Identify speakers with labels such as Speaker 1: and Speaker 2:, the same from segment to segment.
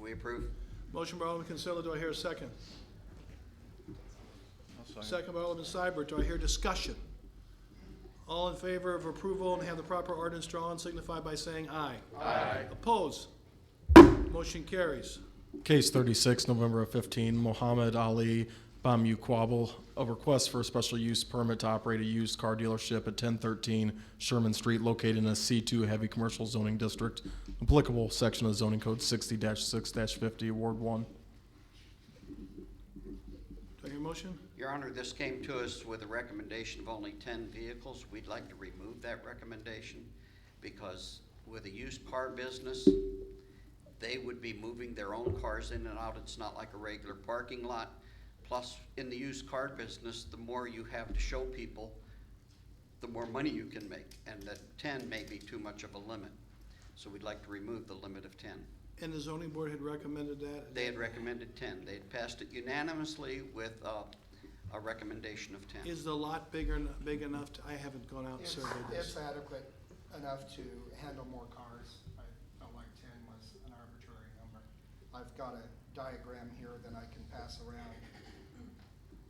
Speaker 1: we approve.
Speaker 2: Motion by Alderman Consilla, do I hear a second? Second by Alderman Seibert, do I hear discussion? All in favor of approval and have the proper ordinance drawn signify by saying aye. Aye. Oppose? Motion carries.
Speaker 3: Case 36, November of 15, Mohammed Ali Bamu Quabble, a request for a special use permit to operate a used car dealership at 1013 Sherman Street located in a C2 heavy commercial zoning district, applicable section of zoning code 60-6-50, Ward 1.
Speaker 2: Do I hear a motion?
Speaker 1: Your Honor, this came to us with a recommendation of only ten vehicles. We'd like to remove that recommendation because with a used car business, they would be moving their own cars in and out. It's not like a regular parking lot. Plus, in the used car business, the more you have to show people, the more money you can make, and that ten may be too much of a limit. So we'd like to remove the limit of ten.
Speaker 2: And the zoning board had recommended that.
Speaker 1: They had recommended ten. They had passed it unanimously with, uh, a recommendation of ten.
Speaker 2: Is the lot bigger, en- big enough? to- I haven't gone out and
Speaker 4: It's
Speaker 2: surveyed
Speaker 4: it's
Speaker 2: this.
Speaker 4: adequate enough to handle more cars. I felt like ten was an arbitrary number. I've got a diagram here that I can pass around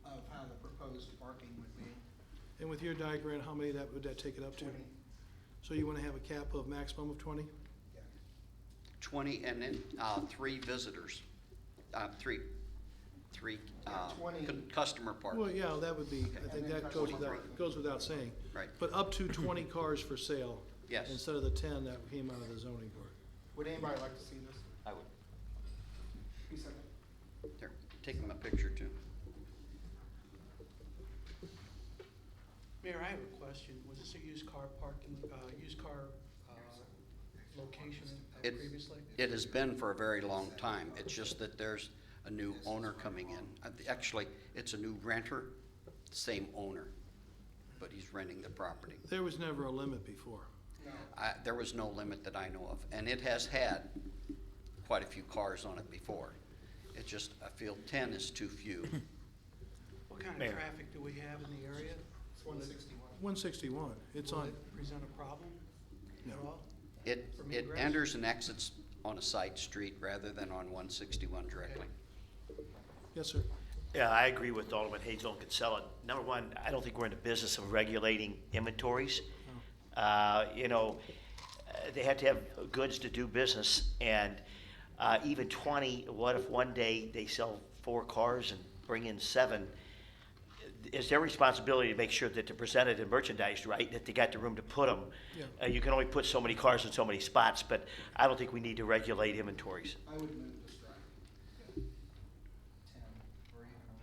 Speaker 4: of how the proposed parking would be.
Speaker 2: And with your diagram, how many that, would that take it up to?
Speaker 4: Twenty.
Speaker 2: So you want to have a cap of maximum of twenty?
Speaker 4: Yeah.
Speaker 1: 20 and then uh, three visitors, uh, three, three uh,
Speaker 4: 20.
Speaker 1: cu- customer
Speaker 2: Well,
Speaker 1: parking.
Speaker 2: yeah, that would be, I think
Speaker 4: And then
Speaker 2: that goes
Speaker 4: customer
Speaker 2: without,
Speaker 4: parking.
Speaker 2: goes without saying.
Speaker 1: Right.
Speaker 2: But up to twenty cars for sale.
Speaker 1: Yes.
Speaker 2: Instead of the ten that came out of the zoning board.
Speaker 4: Would anybody like to see this?
Speaker 1: I would.
Speaker 4: You said that?
Speaker 1: There, take them a picture too.
Speaker 5: Mayor, I have a question. Was this a used car parking, uh, used car, uh, location uh,
Speaker 1: It-
Speaker 5: previously?
Speaker 1: It has been for a very long time. It's just that there's a new owner coming in. Uh, th- Actually, it's a new renter, same owner, but he's renting the property.
Speaker 2: There was never a limit before.
Speaker 1: I- There was no limit that I know of, and it has had quite a few cars on it before. It's just, I feel 10 is too few.
Speaker 5: What kind
Speaker 6: Mayor.
Speaker 5: of traffic do we have in the area?
Speaker 4: It's one sixty-one.
Speaker 2: One sixty-one, it's
Speaker 5: Will
Speaker 2: on,
Speaker 5: it Present a problem at
Speaker 2: No.
Speaker 5: all?
Speaker 1: It,
Speaker 5: From
Speaker 1: it
Speaker 5: egress?
Speaker 1: enters and exits on a side street rather than on one sixty-one directly.
Speaker 2: yes, sir.
Speaker 6: Yeah, I agree with Alderman Hazel and Consilla. Number one, I don't think we're in the business of regulating inventories. Uh, You know, uh, they have to have goods to do business, and uh, even 20, what if one day they sell four cars and bring in seven? It's their responsibility to make sure that they're presented and merchandised right, that they got the room to put them. Uh,
Speaker 2: Yeah.
Speaker 6: You can only put so many cars in so many spots, but I don't think we need to regulate inventories.
Speaker 4: I would move to strike. Ten or even a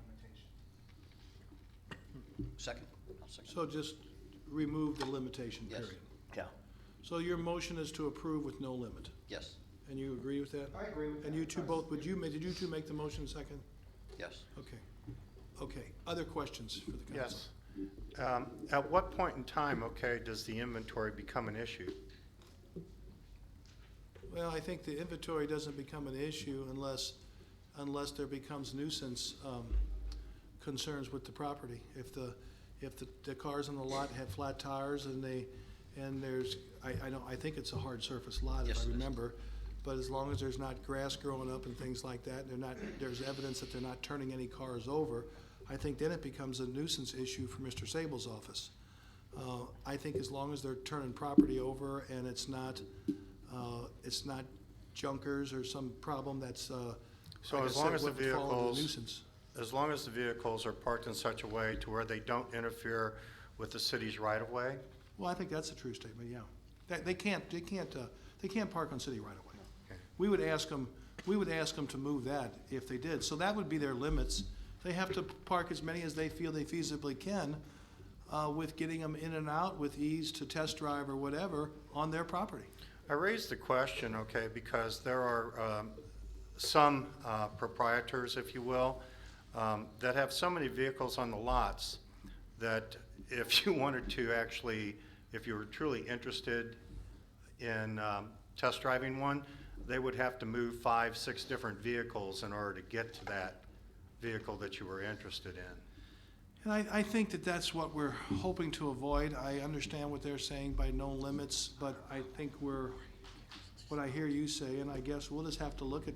Speaker 4: limitation.
Speaker 1: Second, I'll second.
Speaker 2: So just remove the limitation
Speaker 1: Yes.
Speaker 2: period.
Speaker 6: Yeah.
Speaker 2: So your motion is to approve with no limit,
Speaker 1: Yes,
Speaker 2: and you agree with that?
Speaker 4: I agree with that.
Speaker 2: And you two both, would you, ma- did you two make the motion second?
Speaker 1: yes.
Speaker 2: Okay, okay. Other questions for the council?
Speaker 7: Yes. Um, At what point in time, okay, does the inventory become an issue?
Speaker 2: Well, I think the inventory doesn't become an issue unless, unless there becomes nuisance um, concerns with the property. If the, if the the cars on the lot have flat tires and they, and there's, I, I don't, I think it's a hard surface lot
Speaker 1: Yes,
Speaker 2: if
Speaker 1: it
Speaker 2: I
Speaker 1: is.
Speaker 2: remember. But as long as there's not grass growing up and things like that, they're not, there's evidence that they're not turning any cars over, I think then it becomes a nuisance issue for Mr. Sable's office. Uh, I think as long as they're turning property over and it's not, uh, it's not junkers or some problem that's, uh,
Speaker 7: So
Speaker 2: like I
Speaker 7: as
Speaker 2: said,
Speaker 7: long as the
Speaker 2: wouldn't fall under
Speaker 7: vehicles-
Speaker 2: Nuisance.
Speaker 7: As long as the vehicles are parked in such a way to where they don't interfere with the city's right-of-way?
Speaker 2: Well, I think that's a true statement, yeah. They, they can't, they can't, uh, they can't park on city right away.
Speaker 7: Okay.
Speaker 2: We would ask them, we would ask them to move that if they did. So that would be their limits. They have to park as many as they feel they feasibly can, uh, with getting them in and out with ease to test drive or whatever on their property.
Speaker 7: I raised the question, okay, because there are um, some uh, proprietors, if you will, um, that have so many vehicles on the lots that if you wanted to actually, if you were truly interested in um, test driving one, they would have to move five, six different vehicles in order to get to that vehicle that you were interested in.
Speaker 2: And I, I think that that's what we're hoping to avoid. I understand what they're saying by no limits, but I think we're, what I hear you say, and I guess we'll just have to look at